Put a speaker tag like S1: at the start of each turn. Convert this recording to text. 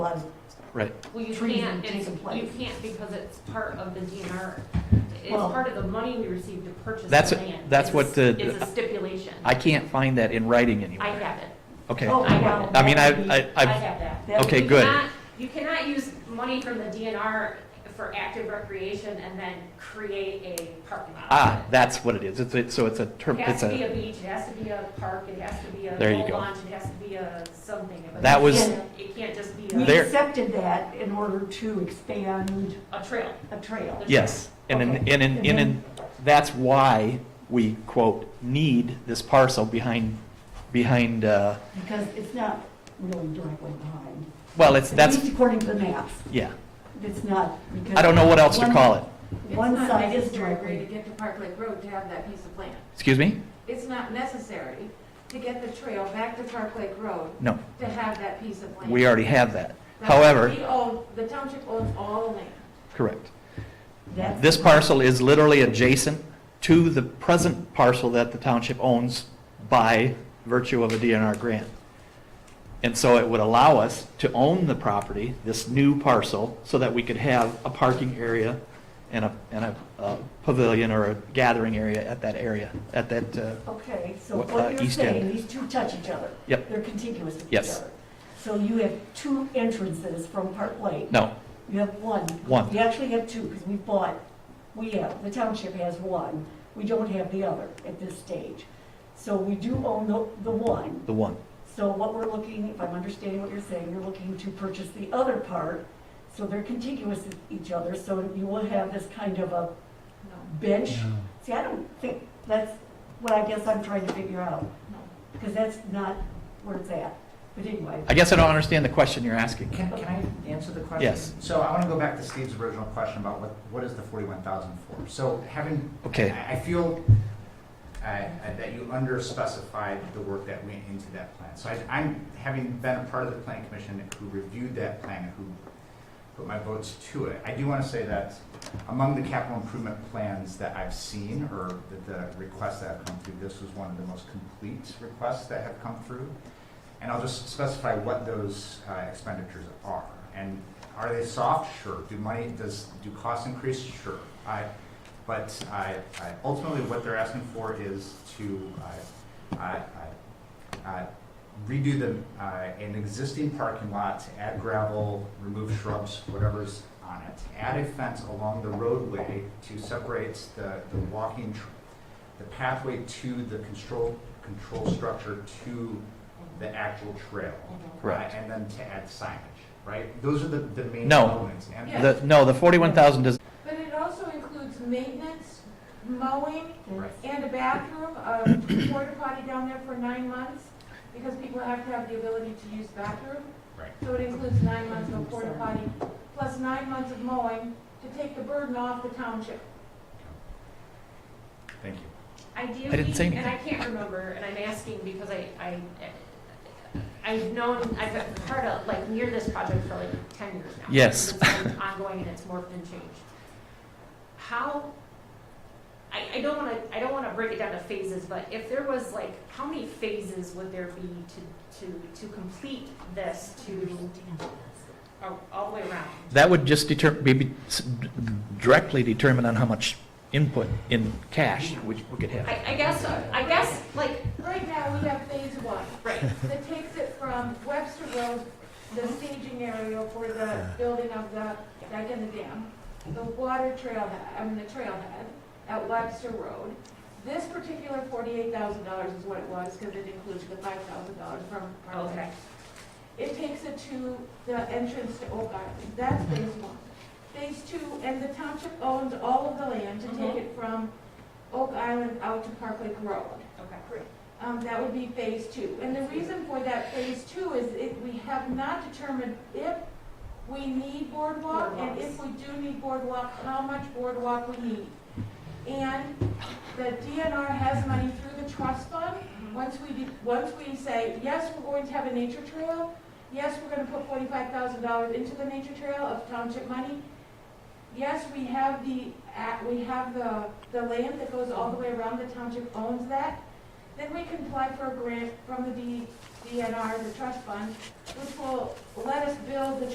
S1: lot of
S2: Right.
S3: Well, you
S1: trees
S3: can't,
S1: being
S3: it's,
S1: taken
S3: you
S1: place.
S3: can't because it's part of the DNR. It's
S1: Well-
S3: part of the money we received to purchase the
S2: That's-
S3: land.
S2: that's
S3: It's a-
S2: what the-
S3: It's a stipulation.
S2: I can't find that in writing
S3: I
S2: anywhere.
S3: have it.
S2: Okay.
S1: Oh,
S3: wow.
S2: I mean, I, I,
S3: I
S2: I've,
S3: have that.
S1: That
S2: Okay,
S3: You
S2: good.
S3: cannot- You cannot use money from the DNR for active recreation and then create a parking lot.
S2: ah, that's what it is. It's, it's, so it's a
S3: It
S2: term,
S3: has
S2: it's
S3: to be
S2: a,
S3: a beach, it has to be a park, it has to be a
S2: There you
S3: boat
S2: go.
S3: launch, it has to be a something. but
S2: That
S3: it
S2: was-
S3: can't- It can't just be
S1: We
S3: a,
S2: There-
S1: accepted that in order to expand
S3: a trail.
S1: a trail.
S2: yes. And in,
S1: Okay.
S2: and in, and in, that's why we quote, need this parcel behind, behind, uh,
S1: Because it's not really directly behind.
S2: well, it's, that's,
S1: At least according to the maps,
S2: yeah.
S1: it's not. because
S2: I don't know what else to call it.
S1: One
S4: It's not
S1: side is
S4: necessary To
S1: directly.
S4: get to Park Lake Road to have that piece of land.
S2: Excuse me?
S4: It's not necessary to get the trail back to Park Lake Road
S2: No,
S4: to have that piece of land.
S2: we already have that.
S4: Now,
S2: However,
S4: we own- The township owns all the land.
S2: correct.
S1: That's-
S2: This parcel is literally adjacent to the present parcel that the township owns by virtue of a DNR grant. And so it would allow us to own the property, this new parcel, so that we could have a parking area and a, and a uh, pavilion or a gathering area at that area, at that, uh,
S1: Okay, so
S2: What, uh,
S1: what you're
S2: east end.
S1: saying, these two touch each other.
S2: Yep.
S1: They're contiguous to each
S2: Yes.
S1: other. So you have two entrances from Park Lake.
S2: no,
S1: You have one.
S2: one,
S1: You actually have two, because we bought, we have, the township has one, we don't have the other at this stage. So we do own the, the one,
S2: the one.
S1: so what we're looking, if I'm understanding what you're saying, you're looking to purchase the other part, so they're contiguous with each other, so you will have this kind of a
S4: No,
S1: bench. See, I don't think, that's what I guess I'm trying to figure out,
S4: no.
S1: because that's not where it's at, but anyway.
S2: I guess I don't understand the question you're asking.
S5: Can, can I answer the question?
S2: Yes.
S5: So I want to go back to Steve's original question about what, what is the forty-one thousand for? So having,
S2: Okay,
S5: I, I feel uh, uh, that you underspecified the work that went into that plan. So I, I'm, having been a part of the planning commission who reviewed that plan, and who put my votes to it, I do want to say that among the capital improvement plans that I've seen, or the, the requests that have come through, this was one of the most complete requests that have come through. And I'll just specify what those uh, expenditures are. And are they soft? Sure. Do money, does, do costs increase? Sure. I- But I- I- ultimately, what they're asking for is to uh, I- I- I redo the, uh, an existing parking lot, add gravel, remove shrubs, whatever's on it, add a fence along the roadway to separate the the walking, tr- the pathway to the control, control structure to the actual trail.
S2: Correct.
S5: Uh, And then to add signage, right? Those are the, the main
S2: No.
S5: elements. And-
S4: Yeah.
S2: the, no, the forty-one thousand does,
S4: But it also includes maintenance, mowing,
S5: Right.
S4: and a bathroom, a porta potty down there for nine months, because people have to have the ability to use bathroom.
S5: Right.
S4: So it includes nine months of porta potty, plus nine months of mowing to take the burden off the township.
S5: Thank you.
S3: Ideally,
S2: I didn't say
S3: and I can't remember, and I'm asking because I, I, I've known, I've been part of, like, near this project for like ten years now.
S2: Yes.
S3: It's been ongoing and it's morphed and changed. How, I, I don't wanna, I don't wanna break it down to phases, but if there was like, how many phases would there be to, to, to complete this to, all- all the way around?
S2: That would just deter, maybe s- directly determine on how much input in cash we we could have.
S3: I, I guess, I guess, like,
S4: Right now, we have phase one,
S3: right,
S4: that takes it from Webster Road, the staging area for the building of the dike and the dam, the water trailhead, I mean, the trailhead at Webster Road. This particular forty-eight thousand dollars is what it was, because it includes the five thousand dollars from Parkland.
S3: okay,
S4: It takes it to the entrance to Oak Island, that's phase one. Phase two, and the township owns all of the land to take it from Oak Island out to Park Lake Road.
S3: okay.
S4: Um, that would be phase two. And the reason for that phase two is if we have not determined if we need boardwalk, and if we do need boardwalk, how much boardwalk we need. And the DNR has money through the trust fund. Once we, de- once we say, yes, we're going to have a nature trail, yes, we're gonna put forty-five thousand dollars into the nature trail of township money. Yes, we have the, a- we have the, the land that goes all the way around, the township owns that. Then we can apply for a grant from the D- DNR, the trust fund, which will let us build the